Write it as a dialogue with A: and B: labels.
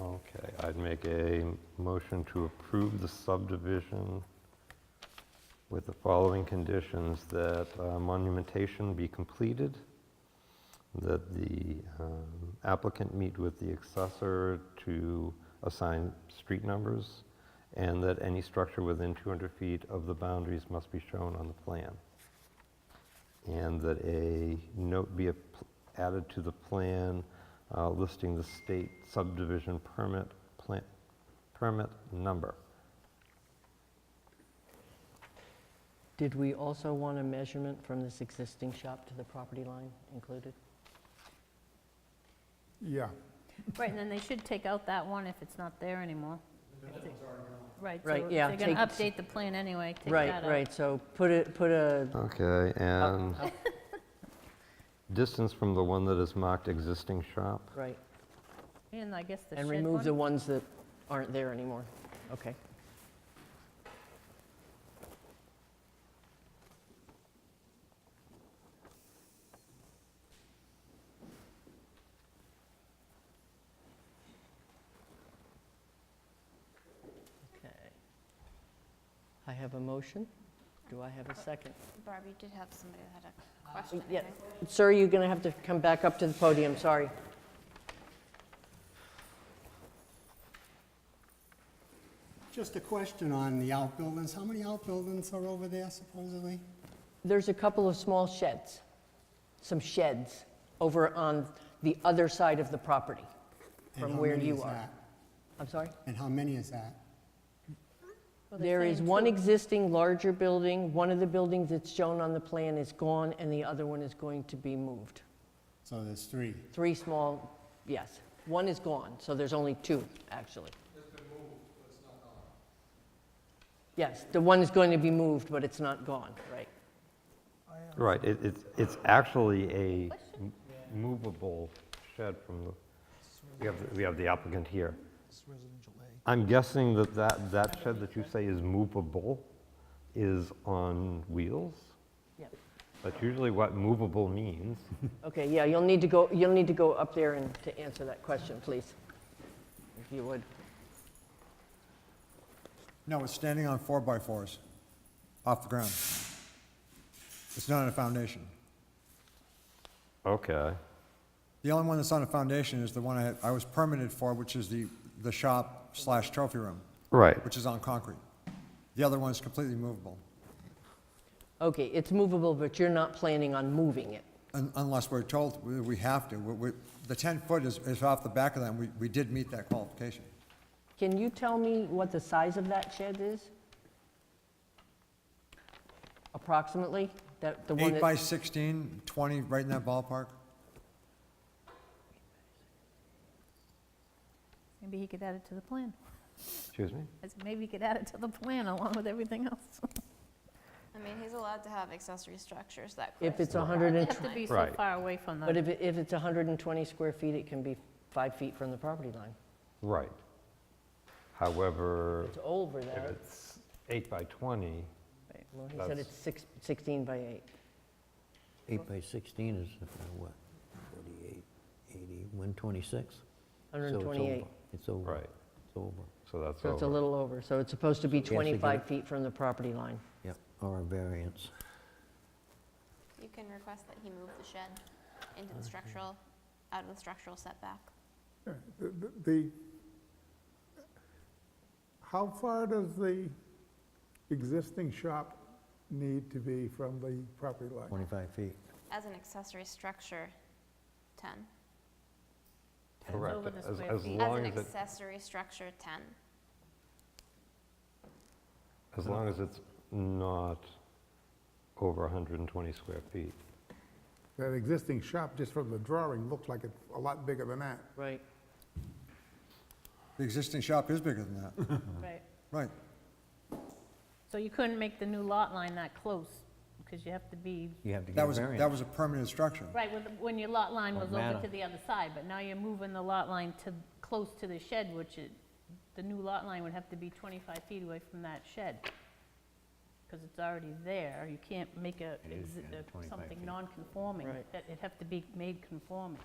A: Okay, I'd make a motion to approve the subdivision with the following conditions, that uh, monumentation be completed, that the um, applicant meet with the accessor to assign street numbers, and that any structure within 200 feet of the boundaries must be shown on the plan. And that a note be ap- added to the plan uh, listing the state subdivision permit, plant, permit number.
B: Did we also want a measurement from this existing shop to the property line included?
C: Yeah,
D: Right, and then they should take out that one if it's not there anymore. Right, so
B: Right,
D: if
B: yeah,
D: they're going to
B: take-
D: update the plan anyway, take that
B: Right,
D: out.
B: right, so put it, put a,
A: Okay, and
B: up-
A: distance from the one that is marked existing shop.
B: right,
D: And I guess the shed
B: and
D: one.
B: remove the ones that aren't there anymore. Okay. Okay. I have a motion. Do I have a second?
E: Barbie did have somebody that had a question. I
B: yeah.
E: think.
B: Sir, you're going to have to come back up to the podium, sorry.
F: Just a question on the outbuildings. How many outbuildings are over there supposedly?
B: There's a couple of small sheds, some sheds over on the other side of the property.
F: And
B: From
F: how
B: where
F: many
B: you
F: is
B: are.
F: that?
B: I'm sorry?
F: And how many is that?
D: Well, they
B: There is
D: claim
B: one
D: two.
B: existing larger building, one of the buildings that's shown on the plan is gone, and the other one is going to be moved.
F: So there's three.
B: Three small, yes, one is gone, so there's only two, actually. Yes, the one is going to be moved, but it's not gone, right?
A: Right, it, it's, it's actually a m- movable shed from the, we have, the- we have the applicant here. I'm guessing that that, that shed that you say is movable is on wheels?
B: Yep.
A: That's usually what movable means.
B: Okay, yeah, you'll need to go, you'll need to go up there and to answer that question, please, if you would.
C: no, it's standing on four by fours, off the ground. It's not on a foundation.
A: Okay,
C: The only one that's on a foundation is the one I, had- I was permitted for, which is the, the shop slash trophy room,
A: right.
C: which is on concrete. The other one's completely movable,
B: Okay, it's movable, but you're not planning on moving it.
C: un- unless we're told we- we have to. We, we, the ten foot is, is off the back of that, and we, we did meet that qualification.
B: Can you tell me what the size of that shed is? Approximately? That, the one
C: Eight by
B: that,
C: 16, 20, right in that ballpark.
D: Maybe he could add it to the plan.
A: Excuse me?
D: I said, Maybe he could add it to the plan along with everything else.
E: I mean, he's allowed to have accessory structures that.
B: if it's
E: correspond.
B: 100
D: They
B: and,
D: have to be so
A: Right.
D: far away from
B: but
D: the,
B: if, it- if it's 120 square feet, it can be five feet from the property line.
A: Right. However,
B: It's over
A: if
B: that.
A: it's eight by 20,
B: Well, he said
A: that's-
B: it's six- 16 by 8.
G: Eight by 16 is uh, what, 48, 80, 126? So it's
B: 128.
G: over. It's over.
A: right,
G: It's over.
A: so that's
B: So it's a
A: over.
B: little over, so it's supposed to be
G: to give
B: 25
G: it-
B: feet from the property line.
G: Yep, or a variance.
E: You can request that he move the shed into the structural, out of the structural setback.
H: The- The, how far does the existing shop need to be from the property line?
G: 25 feet.
E: As an accessory structure, 10.
A: Correct,
D: over the
A: as,
D: square
A: as
D: feet.
E: As
A: long
E: an
A: as it,
E: accessory structure, 10.
A: as long as it's not over 120 square feet.
H: That existing shop, just from the drawing, looks like it's a lot bigger than that.
B: Right.
C: The existing shop is bigger than that,
D: right.
C: right.
D: So you couldn't make the new lot line that close because you have to be,
G: You have to get
C: That
G: a
C: was,
G: variance.
C: that was a permanent structure.
D: right, with- when your lot line was
G: Won't
D: over
G: matter.
D: to the other side, but now you're moving the lot line to, close to the shed, which it, the new lot line would have to be 25 feet away from that shed. Because it's already there. You can't make a,
G: It is
D: exi-
G: kinda
D: a-
G: 25
D: something
G: feet.
D: non-conforming.
B: Right.
D: That- It'd have to be made conforming.